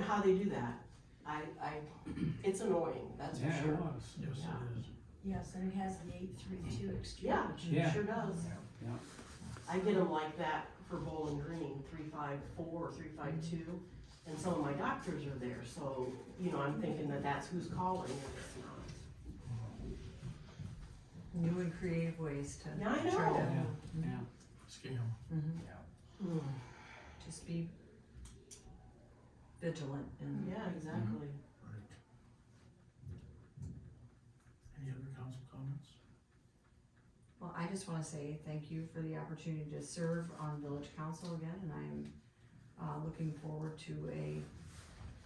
how they do that. I, I, it's annoying, that's for Yeah, it sure. was. Yes, it is. Yes, and it has the eight three two exchange. Yeah, Yeah. it sure does. Yeah. I get them like that for Bowling Green, three five four, three five two, and some of my doctors are there, so, you know, I'm thinking that that's who's calling, and it's not. New and creative ways to. Yeah, I try to- know. Yeah. Scam. Mhm. Mm, Just be vigilant and Yeah, exactly. Right. Any other council comments? Well, I just wanna say thank you for the opportunity to serve on village council again, and I'm, uh, looking forward to a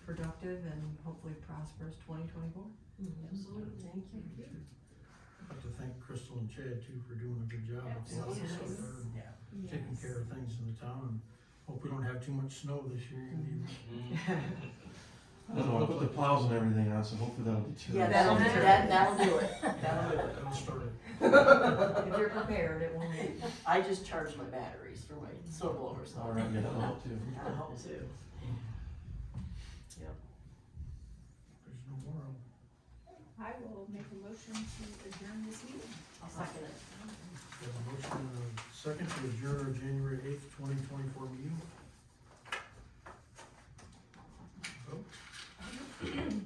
productive and hopefully prosperous twenty twenty-four. Mm-hmm. Absolutely, thank you. I'd like to thank Crystal and Chad too for doing a good job. with lots of stuff there and Taking care of things in the town and hope we don't have too much snow this year. and even- I don't know, I put the plows and everything on, so hopefully that'll deter. Yeah, that'll, that, that'll do it, that'll do it. That'll start it. If you're prepared, it won't. I just charged my batteries for my snow blower, so. All right, yeah, that'll help too. That'll help too. Yep. There's no more. I'll I will make a motion to adjourn this meeting. I'll second it. Have a motion and a second to adjourn our January eighth, twenty twenty-four meeting. Vote.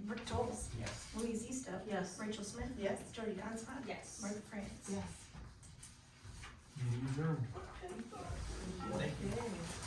Rick Tolz. Yes. Louise Eastup. Yes. Rachel Smith. Yes. Jody Donson. Yes. Martha France. Yes. Meeting adjourned. Okay.